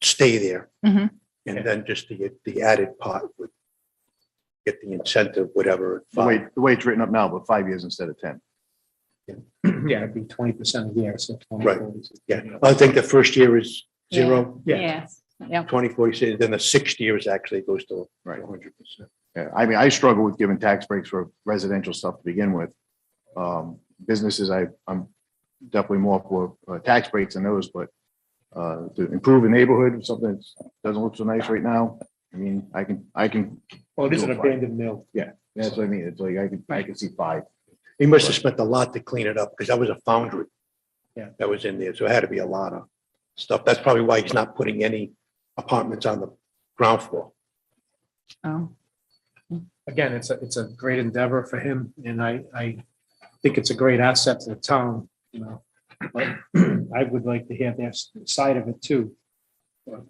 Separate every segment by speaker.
Speaker 1: stay there.
Speaker 2: Mhm.
Speaker 1: And then just to get the added part would get the incentive, whatever.
Speaker 3: The way, the way it's written up now, but five years instead of ten.
Speaker 4: Yeah, it'd be twenty percent a year, so twenty.
Speaker 1: Right, Yeah, I think the first year is zero,
Speaker 4: Yeah,
Speaker 2: Yeah.
Speaker 1: 20, 40, say, then the sixth year is actually goes to
Speaker 3: Right.
Speaker 1: hundred percent.
Speaker 3: Yeah, I mean, I struggle with giving tax breaks for residential stuff to begin with. Um, businesses, I, I'm definitely more for uh, tax breaks than those, but uh, to improve a neighborhood, something that doesn't look so nice right now, I mean, I can, I can,
Speaker 4: well, it is an abandoned mill.
Speaker 3: that's what I mean, it's like, I can, I can see five.
Speaker 1: He must have spent a lot to clean it up because that was a foundry.
Speaker 4: Yeah.
Speaker 1: That was in there, so it had to be a lot of stuff. That's probably why he's not putting any apartments on the ground floor.
Speaker 2: Oh,
Speaker 4: Again, it's a, it's a great endeavor for him and I, I think it's a great asset to the town, you know. But I would like to hear their s- side of it too. But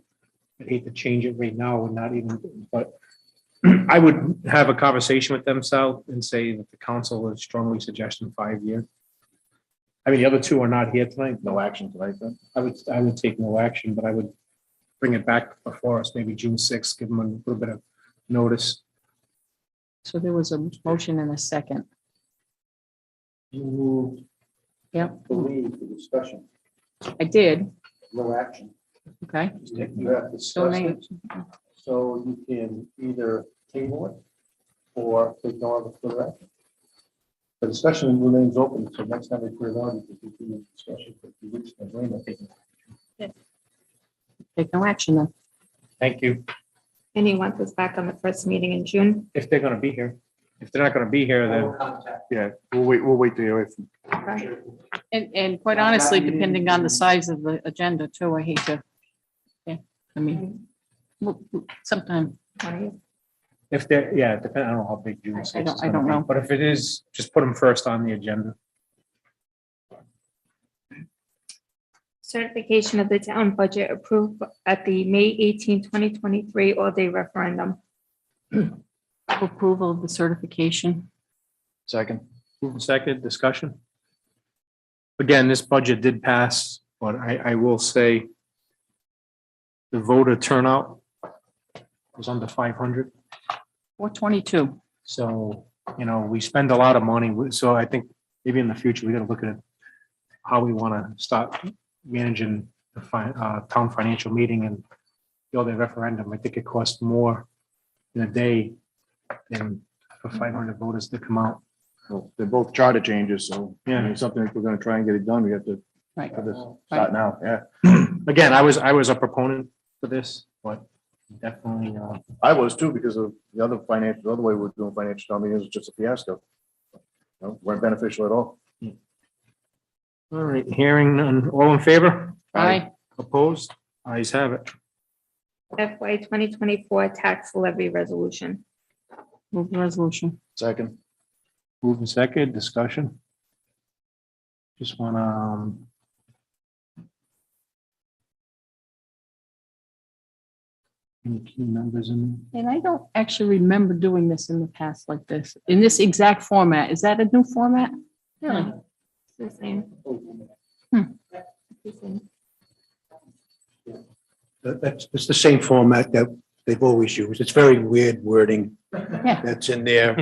Speaker 4: I'd hate to change it right now and not even, but I would have a conversation with them, Sal, and say that the council is strongly suggesting five year. I mean, the other two are not here tonight.
Speaker 3: No action tonight, then?
Speaker 4: I would, I would take no action, but I would bring it back before us, maybe June sixth, give them a little bit of notice.
Speaker 2: so there was a motion and a second.
Speaker 4: You moved
Speaker 2: Yep,
Speaker 4: the lead for discussion,
Speaker 2: I did.
Speaker 4: no action.
Speaker 2: Okay.
Speaker 4: You have
Speaker 2: So
Speaker 4: discussed
Speaker 2: may-
Speaker 4: it, so you can either table it or ignore the further action. The discussion remains open, so next time we put it on, we can continue the discussion, but we reach an agreement.
Speaker 2: Take no action then.
Speaker 4: Thank you.
Speaker 5: And he wants us back on the first meeting in June.
Speaker 4: If they're gonna be here, if they're not gonna be here,
Speaker 2: Oh.
Speaker 4: then.
Speaker 3: Yeah, we'll wait, we'll wait to hear if
Speaker 2: And, and quite honestly, depending on the size of the agenda too, I hate to. Yeah, I mean, w- w- sometime,
Speaker 5: Twentieth.
Speaker 4: If they're, yeah, depending, I don't know how big June
Speaker 2: I- I
Speaker 4: sixth
Speaker 2: don't-
Speaker 4: is
Speaker 2: I
Speaker 4: gonna
Speaker 2: don't
Speaker 4: be,
Speaker 2: know.
Speaker 4: But if it is, just put them first on the agenda.
Speaker 5: Certification of the town budget approved at the May 18, 2023 all-day referendum.
Speaker 2: approval of the certification.
Speaker 3: second.
Speaker 4: Moving second, discussion. Again, this budget did pass, but I, I will say the voter turnout was under five hundred.
Speaker 2: Four twenty-two.
Speaker 4: So, you know, we spend a lot of money, so I think maybe in the future, we gotta look at how we wanna start managing the fi- uh, town financial meeting and the other referendum. I think it costs more in a day than for five hundred voters to come out.
Speaker 3: Well, They're both charter changes, so, yeah, it's something, if we're gonna try and get it done, we have to
Speaker 2: Right.
Speaker 3: have this start now, yeah.
Speaker 4: Again, I was, I was a proponent for this, but definitely, uh,
Speaker 3: I was too, because of the other financial, the other way we're doing financial town meetings was just a fiasco. No, Weren't beneficial at all.
Speaker 4: all right, hearing none, all in favor?
Speaker 2: Aye.
Speaker 4: Opposed? Ayes have it.
Speaker 5: FY twenty twenty-four tax levy resolution.
Speaker 2: Move the resolution.
Speaker 3: Second,
Speaker 4: Move in second, discussion. Just wanna, um. Any key numbers in?
Speaker 2: And I don't actually remember doing this in the past like this, in this exact format. Is that a new format?
Speaker 5: Yeah. It's the same. It's the same.
Speaker 1: That- That's, it's the same format that they've always used. It's very weird wording that's in there.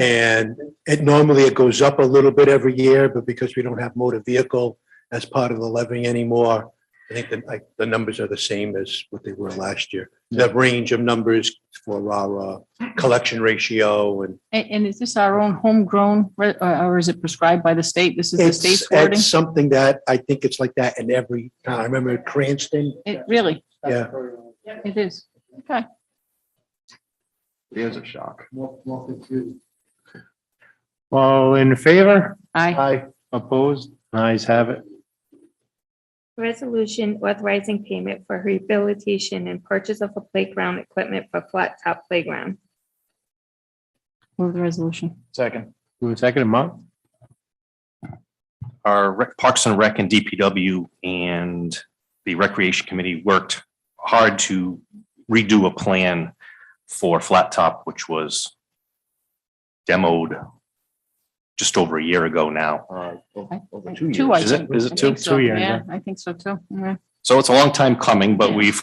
Speaker 1: And it normally it goes up a little bit every year, but because we don't have motor vehicle as part of the levy anymore, I think that like the numbers are the same as what they were last year. The range of numbers for our uh, collection ratio and
Speaker 2: And, and is this our own homegrown, re- uh, or or is it prescribed by the state? This is the
Speaker 1: it's,
Speaker 2: state's wording?
Speaker 1: it's something that I think it's like that in every town. I remember Cranston,
Speaker 2: It really,
Speaker 1: yeah.
Speaker 4: uh,
Speaker 2: it is. Okay.
Speaker 3: it is a shock.
Speaker 4: All in favor?
Speaker 2: Aye.
Speaker 4: Opposed? Ayes have it.
Speaker 5: Resolution authorizing payment for rehabilitation and purchase of a playground equipment for flat top playground.
Speaker 2: Move the resolution.
Speaker 3: Second,
Speaker 4: Move in second, Mark?
Speaker 6: our Rec- Parks and Rec and DPW and the Recreation Committee worked hard to redo a plan for Flat Top, which was demoed just over a year ago now.
Speaker 3: uh, o- over two years.
Speaker 2: Two, I
Speaker 6: Is it-
Speaker 2: think.
Speaker 6: is it
Speaker 2: I
Speaker 6: two?
Speaker 2: think so.
Speaker 4: Two years,
Speaker 2: Yeah, I think so too. Yeah.
Speaker 6: So it's a long time coming, but
Speaker 2: Yeah.
Speaker 6: we've